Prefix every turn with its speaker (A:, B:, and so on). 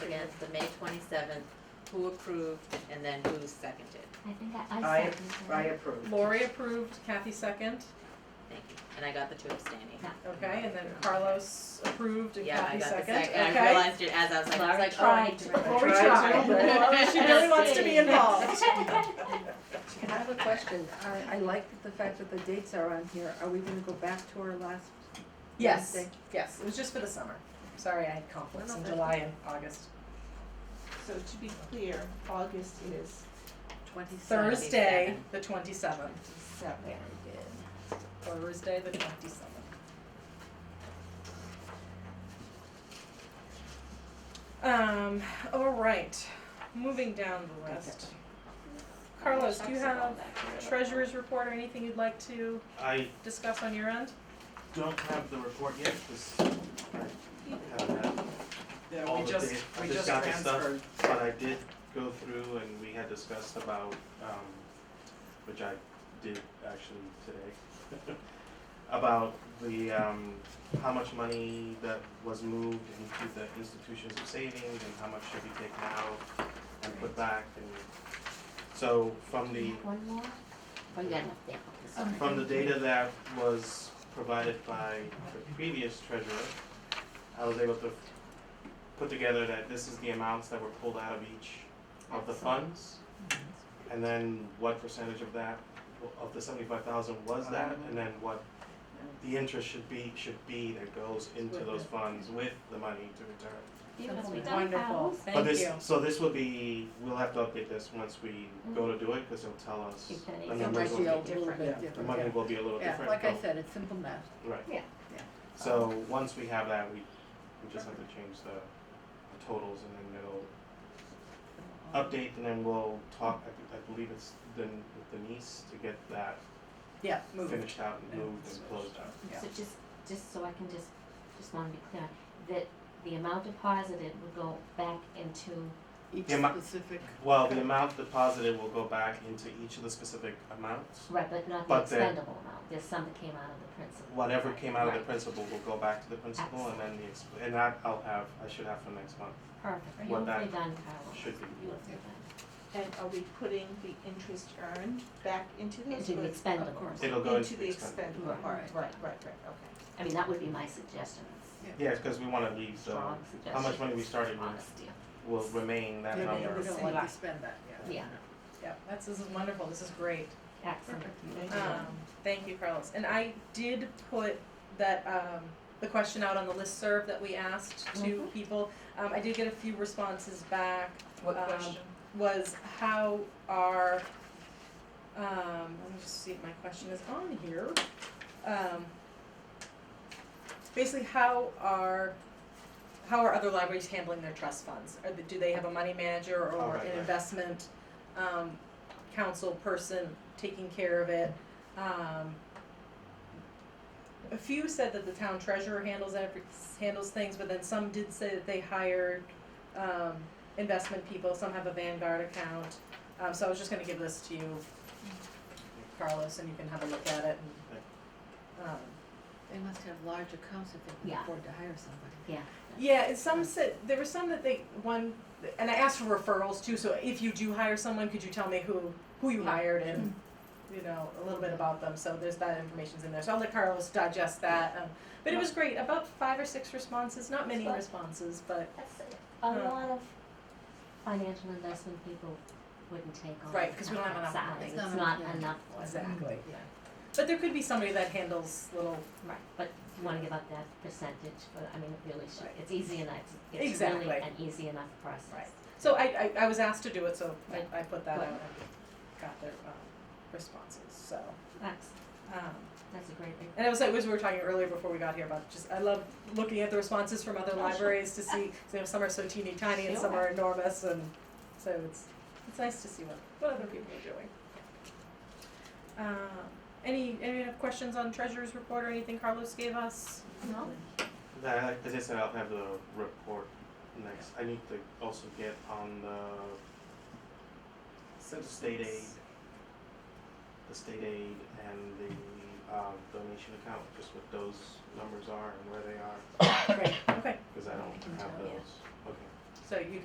A: seventh, the May twenty-seventh, who approved, and then who seconded.
B: I think I,
C: I-
B: I seconded it.
C: I approve.
D: Lori approved, Kathy second,
A: Thank you. And I got the two abstaining.
B: Yeah.
D: okay, and then Carlos approved and
A: Yeah, I got
D: Kathy
A: the
D: second,
A: second,
D: okay?
A: and I realized it as I was like, I was like, oh, I
B: Tried
A: need
B: to.
A: to.
C: Before
D: Lori
C: Tried
D: tried,
C: to.
D: Lori, she really wants to be involved.
E: I have a question. I, I like the fact that the dates are on here. Are we gonna go back to our last?
D: Yes,
E: Wednesday?
D: yes, it was just for the summer. Sorry, I had conflicts in July and August.
F: So to be clear, August is
A: Twenty-seven.
D: Thursday, the twenty-seventh,
F: seven.
D: Thursday, the twenty-seventh. Um, all right, moving down the list. Carlos, do you have treasurer's report or anything you'd like to
G: I
D: discuss on your end?
G: don't have the report yet, because I haven't had,
C: Yeah,
G: All
C: we
G: the
C: just,
G: data. I
C: we
G: just
C: just
G: got the stuff.
C: transferred.
G: but I did go through and we had discussed about, um, which I did actually today, about the, um, how much money that was moved into the institutions of savings and how much should be taken out and put back and, so from the,
B: One more? Oh, you got enough there, okay, sorry.
G: From the data that was provided by the previous treasurer, I was able to put together that this is the amounts that were pulled out of each of the funds. And then what percentage of that, of the seventy-five thousand was that, and then what the interest should be, should be that goes into those funds with the money to return.
B: Beautiful.
D: Wonderful, thank you.
G: But this, so this would be, we'll have to update this once we go to do it, cause it'll tell us
B: Keep that
G: the
B: in.
E: It
G: numbers
E: might
G: will
E: be a
G: be,
E: little
C: Yeah.
E: bit
G: the
E: different.
G: money will be a little
E: Yeah,
G: different,
E: like I
G: but-
E: said, it's simple math.
G: Right.
B: Yeah.
E: Yeah.
G: So, once we have that, we, we just have to change the the totals and then they'll update and then we'll talk, I, I believe it's Den- with Denise to get that
C: Yeah, move it.
G: finished out and
C: Yeah.
G: moved and closed out.
C: Yeah.
B: So just, just so I can just, just wanna be clear, that the amount deposited would go back into,
E: Each
G: Yeah, my-
E: specific,
G: Well, the amount deposited will go back into each of the specific amounts.
B: right, but not the
G: But the-
B: expendable amount, there's some that came out of the principal.
G: Whatever came out of the
B: Right,
G: principal will go back to the principal and then the, ex- and that I'll have, I should have for next month,
B: Perfect,
G: what
B: beautifully done,
G: that
B: Carla.
G: should be.
B: Beautifully
F: And are we putting the interest earned back into
B: done,
F: this?
B: into the
F: or-
B: expendable.
E: of course.
G: It'll go
F: Into the
G: expense.
F: expendable
E: Right.
F: part, right, right, right, okay.
B: I mean, that would be my suggestion, it's
G: Yeah, cause we wanna leave the,
B: strong suggestion.
G: how much money we started with
B: Honest
G: will remain that
E: yeah,
G: number.
E: but we don't
B: Right.
E: want to spend that,
B: deal, yeah,
D: Yeah, that's, this is wonderful, this is great.
B: excellent.
F: Thank you.
D: Um, thank you, Carlos. And I did put that, um, the question out on the listserv that we asked to
B: Mhm.
D: people. Um, I did get a few responses back,
C: What
D: Um,
C: question?
D: was how are, um, let me just see if my question is on here. Um, basically, how are, how are other libraries handling their trust funds? Are they, do they have a money manager
G: Oh,
D: or
G: right,
D: an
G: right.
D: investment, um, council person taking care of it? Um, a few said that the town treasurer handles every, handles things, but then some did say that they hired, um, investment people, some have a Vanguard account. Um, so I was just gonna give this to you, Carlos, and you can have a look at it and, um,
E: They must have large accounts if they can
B: Yeah.
E: afford to hire somebody.
D: yeah, and some said, there were some that they, one, and I asked for referrals too, so if you do hire someone, could you tell me who, who you
B: Yeah. Mm-hmm.
D: hired and, you know, a little bit about them, so there's that information's in there, so I'll let Carlos digest that, um, but it was great, about five or six responses, not many
B: That's
D: responses, but,
B: That's, a
D: Um,
B: lot of financial investment people wouldn't take on.
D: Right, 'cause we don't have enough
B: that
D: money.
B: size.
E: It's
B: It's not
E: not enough, yeah.
B: enough for them.
D: exactly. But there could be somebody that handles little
B: Right, but if you wanna give up that percentage, but I mean, it really should,
D: Right.
B: it's easy enough, it's really
D: Exactly.
B: an easy enough process.
D: Right. So I, I, I was asked to do it, so I, I put that out
B: Right.
D: and got their, um, responses, so,
B: That's,
D: um,
B: that's a great,
D: and I was like, as we were talking earlier before we got here about just, I love looking at the responses from other
B: sure.
D: libraries to see, you know, some are so teeny tiny and some
B: Sure.
D: are enormous and so it's, it's nice to see what, what other people are doing. Um, any, any other questions on treasurer's report or anything Carlos gave us?
B: no,
G: That, as I said, I'll have the report next. I need to also get on the state aid, the state aid and the um, donation account, just what those numbers are and where they are,
D: Great. Okay,
G: because I don't have
E: tell you.
G: those. Okay.
D: so you